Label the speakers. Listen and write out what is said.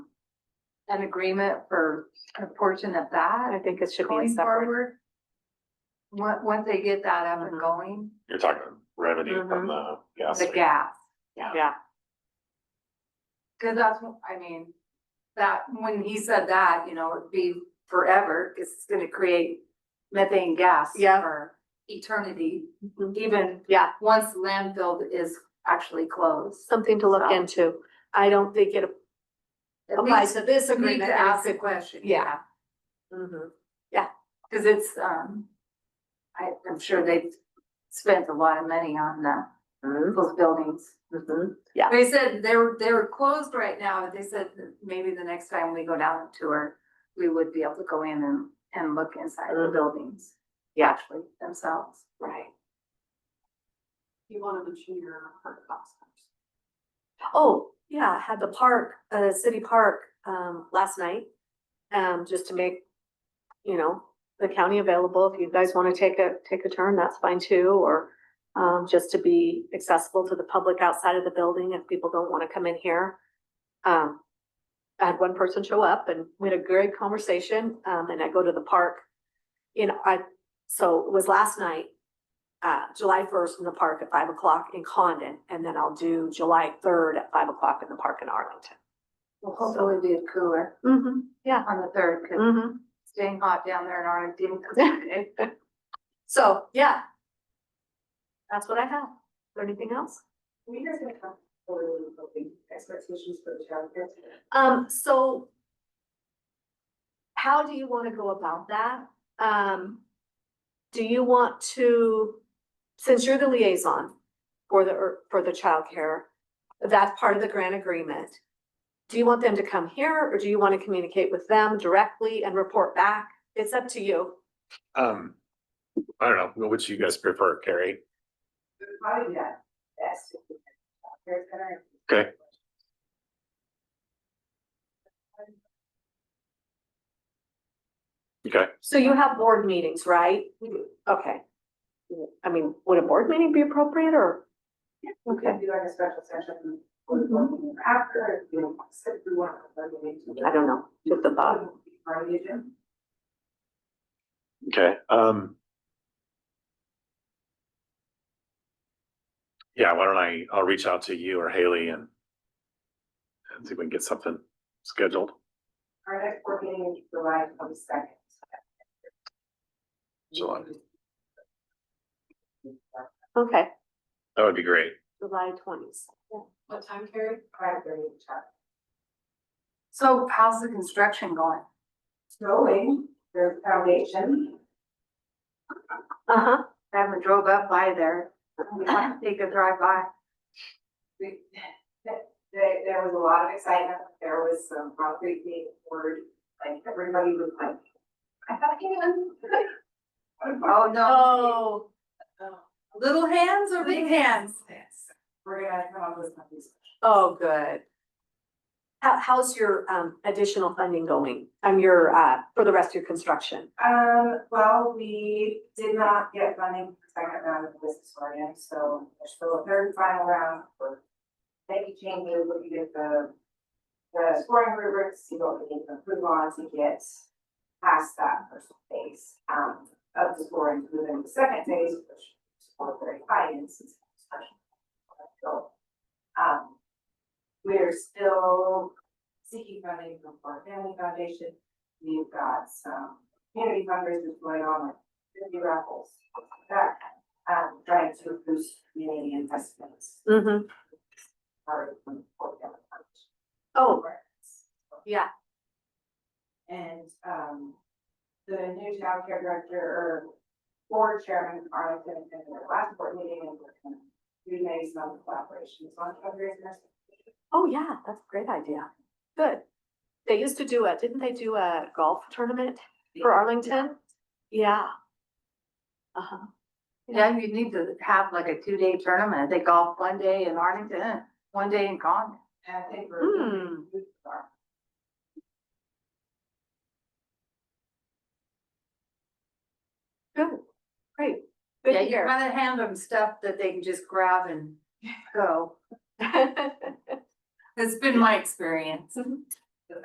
Speaker 1: an agreement for a portion of
Speaker 2: I
Speaker 1: that
Speaker 2: think it should be a
Speaker 1: going
Speaker 2: separate.
Speaker 1: forward? Once, once they get that up and
Speaker 2: Mhm.
Speaker 1: going,
Speaker 3: You're talking revenue from the gas.
Speaker 1: the
Speaker 3: station.
Speaker 1: gas,
Speaker 2: Yeah,
Speaker 1: cause that's, what- I mean, that, when he said that, you know, it'd be forever, cause it's gonna create methane gas
Speaker 2: Yeah.
Speaker 1: for eternity,
Speaker 2: Mhm.
Speaker 1: even
Speaker 2: yeah,
Speaker 1: once landfill is actually closed.
Speaker 2: something to look
Speaker 1: So-
Speaker 2: into. I don't think it.
Speaker 1: At
Speaker 2: Applies
Speaker 1: least
Speaker 2: to this
Speaker 1: we Need
Speaker 2: agreement
Speaker 1: to
Speaker 2: and
Speaker 1: ask a
Speaker 2: it's-
Speaker 1: question.
Speaker 2: yeah. Mhm.
Speaker 1: Cause it's, um, I, I'm sure they've spent a lot of money on the,
Speaker 2: Mm-hmm.
Speaker 1: those buildings.
Speaker 2: Mhm.
Speaker 1: They said they're, they're closed right now, they said that maybe the next time we go down and tour, we would be able to go in and, and look inside the
Speaker 2: Mhm.
Speaker 1: buildings.
Speaker 2: Yeah.
Speaker 1: Actually themselves.
Speaker 2: Right.
Speaker 4: You wanna mention your hard costs.
Speaker 2: Oh, yeah, I had the park, uh, city park, um, last night, um, just to make, you know, the county available. If you guys wanna take a, take a turn, that's fine too, or, um, just to be accessible to the public outside of the building if people don't wanna come in here. Um, I had one person show up and we had a great conversation, um, and I go to the park. You know, I, so it was last night, uh, July first in the park at five o'clock in Condon, and then I'll do July third at five o'clock in the park in Arlington.
Speaker 1: Well, hopefully it'll be cooler
Speaker 2: Mm-hmm, yeah.
Speaker 1: on the third, cause
Speaker 2: Mm-hmm.
Speaker 1: it's staying hot down there in Arlington.
Speaker 2: So, yeah. That's what I have. Is there anything else?
Speaker 4: We just gonna have quarterly voting expectations for the childcare.
Speaker 2: Um, so. How do you wanna go about that? Um. Do you want to, since you're the liaison for the, or for the childcare, that's part of the grant agreement. Do you want them to come here or do you wanna communicate with them directly and report back? It's up to you.
Speaker 3: Um, I don't know, which you guys prefer, Carrie?
Speaker 4: Probably that, that's. Here's what I-
Speaker 3: Okay. Okay,
Speaker 2: So you have board meetings, right? Okay. I mean, would a board meeting be appropriate or?
Speaker 4: We could do like a special session. for the board meeting After, you know, sit through one of the board meetings.
Speaker 2: Mm-hmm. I don't know, just a thought.
Speaker 4: Our agenda.
Speaker 3: okay, um. Yeah, why don't I, I'll reach out to you or Haley and and see if we can get something scheduled.
Speaker 4: Our next board meeting is July twenty second.
Speaker 3: July.
Speaker 2: Okay,
Speaker 3: That would be great.
Speaker 2: July twenties.
Speaker 4: What time, Carrie? Five thirty, chat.
Speaker 1: So how's the construction going?
Speaker 4: Snowing, there's foundation.
Speaker 2: Uh-huh,
Speaker 1: I haven't drove up by there, we might take a drive by.
Speaker 4: we- that- There, there was a lot of excitement, there was some concrete being poured, like everybody was like, I thought he was.
Speaker 1: Oh, no,
Speaker 2: oh,
Speaker 1: little hands or big hands?
Speaker 4: We're gonna come up with something special.
Speaker 2: oh, good. How, how's your, um, additional funding going? Um, your, uh, for the rest of your construction?
Speaker 4: Um, well, we did not get funding for the second round of the business plan, so there's still a third and final round for making changes, looking at the the scoring rubrics, see what we need to improve on to get past that first phase um of the scoring, and then the second phase, which is for very high in since construction. So, um, we're still seeking funding from our family foundation. We've got some community fundraisers going on, like fifty raffles, that, um, trying to boost community investments.
Speaker 2: Mm-hmm.
Speaker 4: Part of the program.
Speaker 2: Oh, yeah,
Speaker 4: And, um, the new town care director or board chairman, Arlington, in their last board meeting, and we're gonna do maybe some collaborations on fundraisers.
Speaker 2: oh, yeah, that's a great idea. Good. They used to do a, didn't they do a golf tournament for Arlington? Yeah. Uh-huh.
Speaker 1: Yeah, you need to have like a two-day tournament, they golf one day in Arlington, one day in Con.
Speaker 4: And I think we're.
Speaker 2: Hmm, good, great, good
Speaker 1: Yeah,
Speaker 2: to
Speaker 1: you
Speaker 2: hear.
Speaker 1: kind of hand them stuff that they can just grab and go,
Speaker 2: Good
Speaker 4: Mm-hmm.
Speaker 1: it's been my experience.